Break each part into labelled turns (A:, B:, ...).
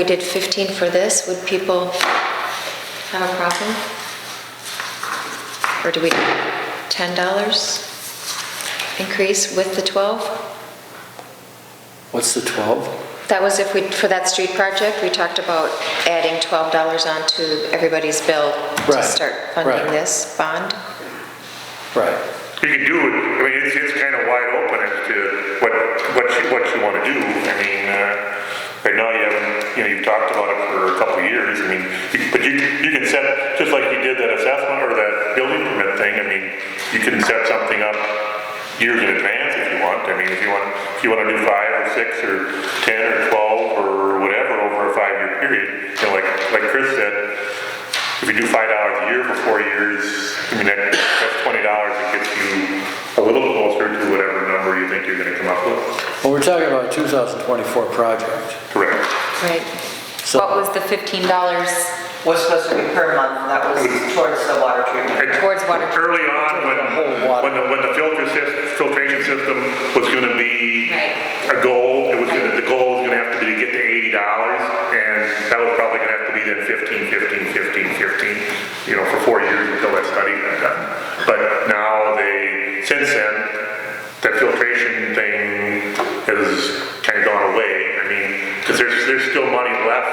A: We did 15 for this, would people have a problem? Or do we, $10 increase with the 12?
B: What's the 12?
A: That was if we, for that street project, we talked about adding $12 onto everybody's bill to
B: Right,
A: start
B: right.
A: funding this bond.
B: Right.
C: You can do it, I mean, it's, it's kind of wide open as to what, what you, what you want to do. I mean, uh, right now you haven't, you know, you've talked about it for a couple of years, I mean, you- but you, you can set, just like you did that assessment or that building permit thing, I mean, you can set something up years in advance if you want. I mean, if you want, if you want to do five or six or 10 or 12 or whatever over a five-year period, you know, like, like Chris said, if you do five dollars a year for four years, I mean, that, that's twenty dollars, it gets you a little closer to whatever number you think you're gonna come up with.
B: Well, we're talking about a 2024 project.
C: Correct.
A: Right.
D: What
B: So
D: was the $15
E: was supposed to be per month, that was towards the water treatment.
D: towards water?
C: Early on, when,
B: Whole water.
C: when the, when the filter sys, filtration system was gonna be
D: Right.
C: a goal, it was gonna, the goal was gonna have to be to get to eighty dollars, and that was probably gonna have to be then fifteen, fifteen, fifteen, fifteen, you know, for four years until that study got done. But now they, since then, that filtration thing has kinda gone away, I mean, cause there's, there's still money left.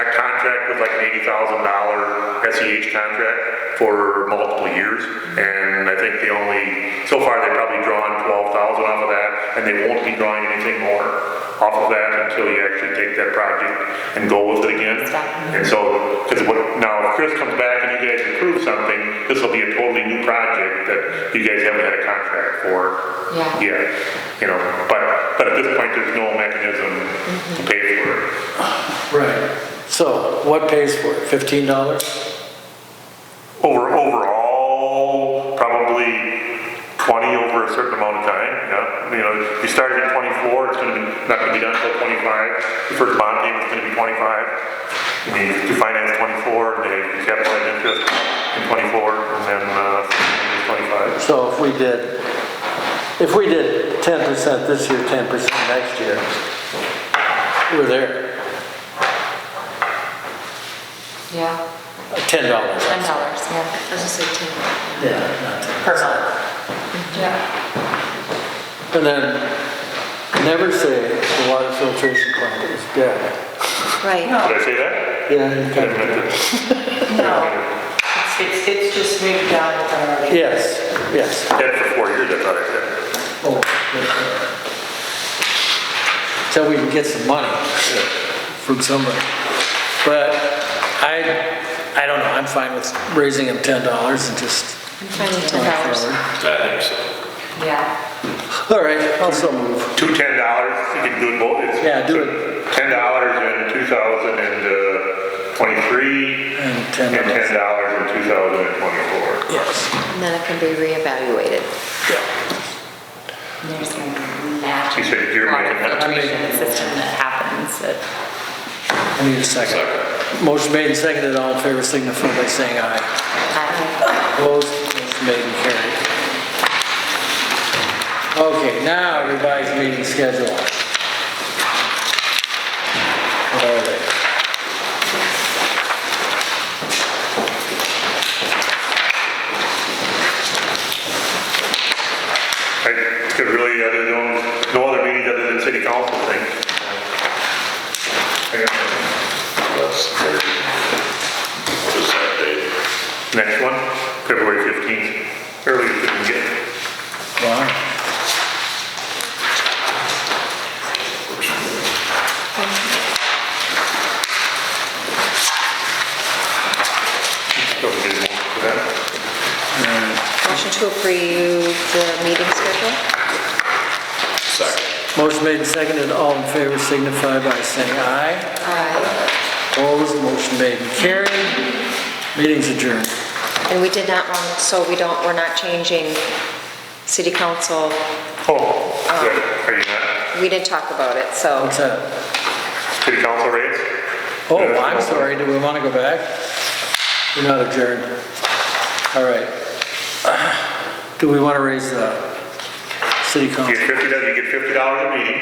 C: That contract was like an eighty thousand dollar SEH contract for multiple years, and I think they only, so far, they've probably drawn twelve thousand off of that, and they won't be drawing anything more off of that until you actually take that project and go with it again. And so, because what, now, if Chris comes back and you guys approve something, this will be a totally new project that you guys haven't had a contract for
D: Yeah.
C: yet, you know, but, but at this point, there's no mechanism to pay for it.
B: Right. So what pays for it? $15?
C: Over, overall, probably 20 over a certain amount of time, yeah. You know, you started at 24, it's gonna be, not gonna be done until 25. The first bond payment's gonna be 25. I mean, you finance 24, they capitalize interest in 24, and then, uh, 25.
B: So if we did, if we did 10% this year, 10% next year, we're there.
D: Yeah, $10,
B: $10.
D: yeah.
A: I was gonna say 10.
B: Yeah, not 10.
E: Per month.
D: Yeah.
B: And then never say the water filtration plant is dead.
A: Right.
C: Did I say that?
B: Yeah, you kind of did.
E: No. It's, it's just moved down from our.
B: Yes, yes.
C: Dead for four years, I thought I said.
B: Oh, okay. So we can get some money from somebody. But I, I don't know, I'm fine with raising them $10 and just
A: I'm fine with
B: going
A: $10.
B: forward.
F: I think so.
D: Yeah.
B: All right, also move.
C: Two ten dollars, you can do it both. It's-
B: Yeah, do it.
C: Ten dollars in two thousand and uh, twenty-three,
B: And
C: and ten
B: $10,
C: dollars in two thousand and twenty-four.
B: yes.
A: And then it can be reevaluated.
D: There's going to be magic.
C: You said you're making that.
D: Filtration system that happens that.
B: I need a second. Motion made and seconded, all in favor, signify by saying aye. Opposed, motion made and carried. Okay, now revised meeting schedule. What are they?
C: I could really, uh, there's no, no other meetings other than city council thing.
F: That's thirty. What is that date?
C: Next one, February fifteenth, early as we can get.
B: Wow.
C: Don't get more for that.
A: Motion to approve the meeting schedule?
F: Second.
B: Motion made and seconded, all in favor signify by saying aye.
D: Uh,
A: Aye.
B: Opposed, motion made and carried. Meeting's adjourned.
A: And we did not want, so we don't, we're not changing city council,
C: Oh, yeah, are you not,
A: we didn't talk about it, so.
B: What's that?
C: city council rates?
B: Oh, I'm sorry, do we want to go back? We're not adjourned. All right. Do we want to raise the city
C: You
B: council?
C: get fifty, you get fifty dollars a meeting,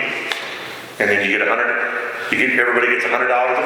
C: and then you get a hundred, you get, everybody gets a hundred dollars a